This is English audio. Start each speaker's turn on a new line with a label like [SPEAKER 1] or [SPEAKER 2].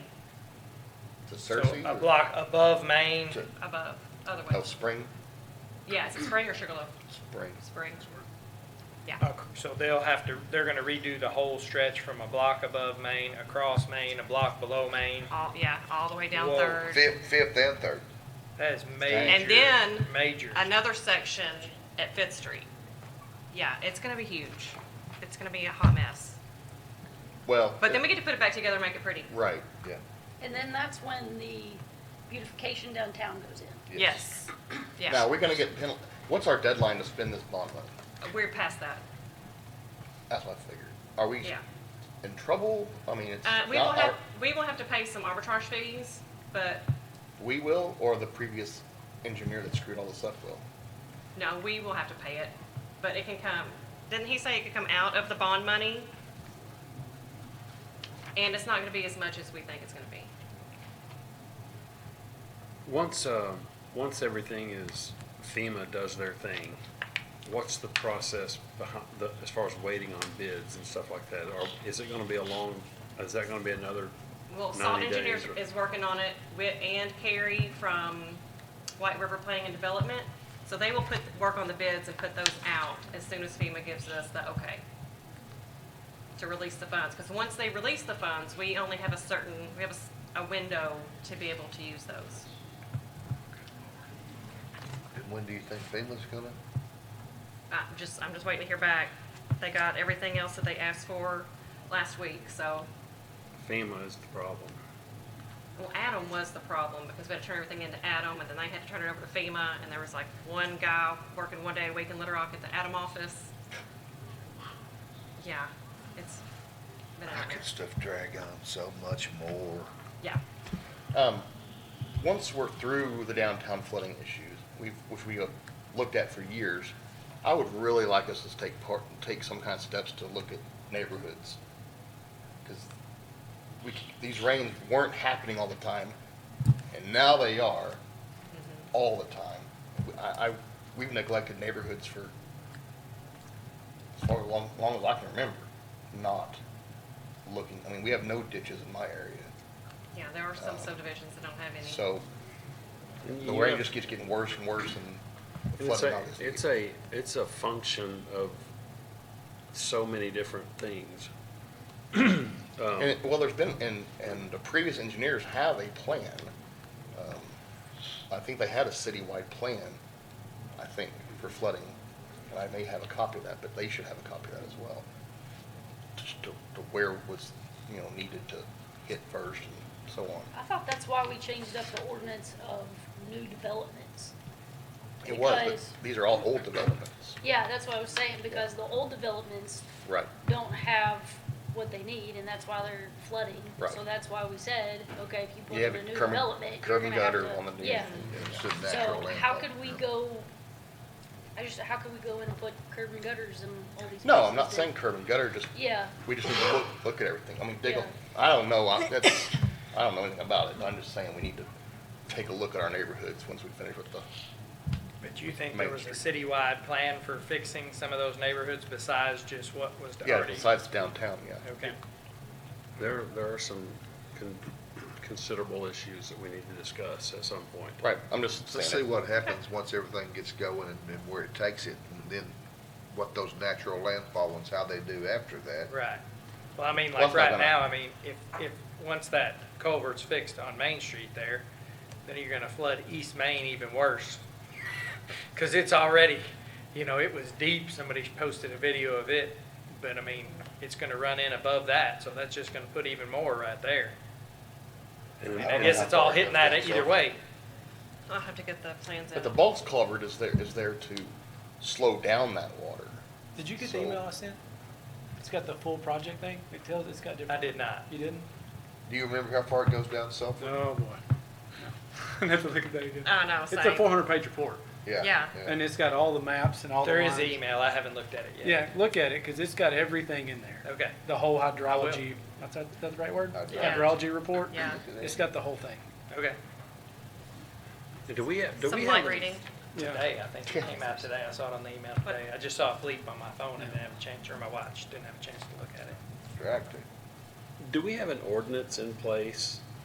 [SPEAKER 1] to
[SPEAKER 2] So
[SPEAKER 1] Cersei?
[SPEAKER 2] a
[SPEAKER 1] or-
[SPEAKER 2] block above Main,
[SPEAKER 1] to-
[SPEAKER 3] above, other way.
[SPEAKER 1] No, Spring,
[SPEAKER 3] Yeah, is it Spring or Sugarloaf?
[SPEAKER 1] Spring.
[SPEAKER 3] Spring. Yeah.
[SPEAKER 2] Okay, uh, so they'll have to, they're gonna redo the whole stretch from a block above Main, across Main, a block below Main.
[SPEAKER 3] All, yeah, all the way down
[SPEAKER 2] Whoa.
[SPEAKER 3] Third.
[SPEAKER 1] Fifth, fifth and third.
[SPEAKER 2] That is
[SPEAKER 1] And
[SPEAKER 2] major,
[SPEAKER 3] then
[SPEAKER 2] major.
[SPEAKER 3] Another section at Fifth Street. Yeah, it's gonna be huge. It's gonna be a hot mess.
[SPEAKER 1] Well.
[SPEAKER 3] But then we get to put it back together and make it pretty.
[SPEAKER 1] Right, yeah.
[SPEAKER 4] And then that's when the beautification downtown goes in.
[SPEAKER 3] Yes,
[SPEAKER 1] Now,
[SPEAKER 3] yeah.
[SPEAKER 1] we're gonna get penal, what's our deadline to spend this bond money?
[SPEAKER 3] We're past that,
[SPEAKER 1] That's what I figured. Are we
[SPEAKER 3] yeah.
[SPEAKER 1] in trouble? I mean, it's
[SPEAKER 3] Uh, we will
[SPEAKER 1] not our,
[SPEAKER 3] have, we will have to pay some arbitrage fees, but
[SPEAKER 1] we will, or the previous engineer that screwed all this up will?
[SPEAKER 3] no, we will have to pay it. But it can come, didn't he say it could come out of the bond money? And it's not gonna be as much as we think it's gonna be.
[SPEAKER 5] Once, uh, once everything is FEMA does their thing, what's the process behind, the, as far as waiting on bids and stuff like that? Or is it gonna be a long, is that gonna be another,
[SPEAKER 3] Well, Salt
[SPEAKER 5] 90
[SPEAKER 3] Engineers
[SPEAKER 5] days or-
[SPEAKER 3] is working on it with, and Carrie from White River Planning and Development. So they will put, work on the bids and put those out as soon as FEMA gives us the okay to release the funds. Because once they release the funds, we only have a certain, we have a s- a, window to be able to use those.
[SPEAKER 1] And when do you think FEMA's gonna?
[SPEAKER 3] i just, I'm just waiting to hear back. They got everything else that they asked for last week, so.
[SPEAKER 5] FEMA is the problem?
[SPEAKER 3] Well, Adam was the problem because we had to turn everything into Adam and then they had to turn it over to FEMA and there was like one guy working one day a week in Little Rock at the Adam office. Yeah, it's been a
[SPEAKER 6] How
[SPEAKER 3] nightmare.
[SPEAKER 6] can stuff drag on so much more?
[SPEAKER 3] Yeah,
[SPEAKER 1] Um, once we're through the downtown flooding issues, we've, which we have looked at for years, I would really like us to take part, take some kind of steps to look at neighborhoods. Cause we, these rains weren't happening all the time, and now they are all the time. I, I, we've neglected neighborhoods for as far, long, long as I can remember, not looking, I mean, we have no ditches in my area.
[SPEAKER 3] yeah, there are some subdivisions that don't have any.
[SPEAKER 1] So
[SPEAKER 5] And
[SPEAKER 1] the
[SPEAKER 5] you
[SPEAKER 1] rain
[SPEAKER 5] have-
[SPEAKER 1] just keeps getting worse and worse and the
[SPEAKER 5] It's
[SPEAKER 1] flooding
[SPEAKER 5] a,
[SPEAKER 1] obviously.
[SPEAKER 5] it's a, it's a function of so many different things. Um,
[SPEAKER 1] And, it- well, there's been, and, and the previous engineers have a plan. Um, I think they had a citywide plan, I think, for flooding. And I may have a copy of that, but they should have a copy of that as well. Just to, to where was, you know, needed to hit first and so on.
[SPEAKER 4] I thought that's why we changed up the ordinance of new developments.
[SPEAKER 1] It was, but
[SPEAKER 4] Because-
[SPEAKER 1] these are all old developments.
[SPEAKER 4] Yeah, that's what I was saying, because the old developments
[SPEAKER 1] Right.
[SPEAKER 4] don't have what they need, and that's why they're flooding.
[SPEAKER 1] Right.
[SPEAKER 4] So that's why we said, okay, if you put
[SPEAKER 1] You have
[SPEAKER 4] in
[SPEAKER 1] a
[SPEAKER 4] a new
[SPEAKER 1] curb
[SPEAKER 4] development,
[SPEAKER 1] and,
[SPEAKER 4] you're
[SPEAKER 1] curb
[SPEAKER 4] gonna
[SPEAKER 1] and
[SPEAKER 4] have
[SPEAKER 1] gutter
[SPEAKER 4] to-
[SPEAKER 1] on the new.
[SPEAKER 4] Yeah,
[SPEAKER 6] It's just natural.
[SPEAKER 4] so
[SPEAKER 6] land.
[SPEAKER 4] how could we go, I just, how could we go in and put curb and gutters in all these places?
[SPEAKER 1] No, I'm not
[SPEAKER 4] that-
[SPEAKER 1] saying curb and gutter, just
[SPEAKER 4] Yeah,
[SPEAKER 1] We just need to look, look at everything. I mean, dig,
[SPEAKER 4] Yeah.
[SPEAKER 1] a- I don't know, I, that's, I don't know anything about it, but I'm just saying we need to take a look at our neighborhoods once we finish with the,
[SPEAKER 2] But you think there
[SPEAKER 1] Main
[SPEAKER 2] was a citywide plan for fixing some of those neighborhoods besides just what was
[SPEAKER 1] yeah,
[SPEAKER 2] already?
[SPEAKER 1] besides downtown, yeah.
[SPEAKER 2] Okay.
[SPEAKER 5] There, there are some con- considerable issues that we need to discuss at some point.
[SPEAKER 1] Right, I'm just
[SPEAKER 6] Let's see
[SPEAKER 1] saying that.
[SPEAKER 6] what happens once everything gets going and then where it takes it, and then what those natural landfall ones, how they do after that.
[SPEAKER 2] Right. Well, I mean,
[SPEAKER 1] Well,
[SPEAKER 2] like
[SPEAKER 1] it's not
[SPEAKER 2] right
[SPEAKER 1] gonna-
[SPEAKER 2] now, I mean, if, if, once that culvert's fixed on Main Street there, then you're gonna flood East Main even worse. Cause it's already, you know, it was deep. Somebody posted a video of it, but I mean, it's gonna run in above that, so that's just gonna put even more right there.
[SPEAKER 5] And
[SPEAKER 2] I guess it's all hitting that either way.
[SPEAKER 3] I'll have to get the plans
[SPEAKER 1] But the
[SPEAKER 3] in.
[SPEAKER 1] bulk's culvert is there, is there to slow down that water.
[SPEAKER 7] Did you get
[SPEAKER 1] So-
[SPEAKER 7] the email I sent? It's got the full project thing. It tells, it's got
[SPEAKER 2] I
[SPEAKER 7] different.
[SPEAKER 2] did not.
[SPEAKER 7] You didn't?
[SPEAKER 1] Do you remember how far it goes down south?
[SPEAKER 7] Oh, boy. I have to look at that again.
[SPEAKER 3] I know,
[SPEAKER 7] It's a
[SPEAKER 3] same.
[SPEAKER 7] four hundred page report
[SPEAKER 1] Yeah.
[SPEAKER 3] Yeah.
[SPEAKER 7] and it's got all the maps and all the
[SPEAKER 2] There is
[SPEAKER 7] lines.
[SPEAKER 2] an email. I haven't looked at it
[SPEAKER 7] Yeah,
[SPEAKER 2] yet.
[SPEAKER 7] look at it, cause it's got everything in there.
[SPEAKER 2] Okay.
[SPEAKER 7] The whole hydrology, that's, that's the right word?
[SPEAKER 1] Hydrology.
[SPEAKER 3] Yeah.
[SPEAKER 7] Hydrology report?
[SPEAKER 3] Uh, Yeah.
[SPEAKER 7] It's got the whole thing.
[SPEAKER 2] Okay.
[SPEAKER 5] Do we have, do we
[SPEAKER 3] Some
[SPEAKER 5] have?
[SPEAKER 3] light
[SPEAKER 5] any-
[SPEAKER 3] reading.
[SPEAKER 7] Yeah.
[SPEAKER 2] Today, I think it came out today. I saw it on the email today. I just saw it bleep on my phone and didn't have a chance, or my watch, didn't have a chance to look at it.
[SPEAKER 6] Distracting.
[SPEAKER 5] Do we have an ordinance in place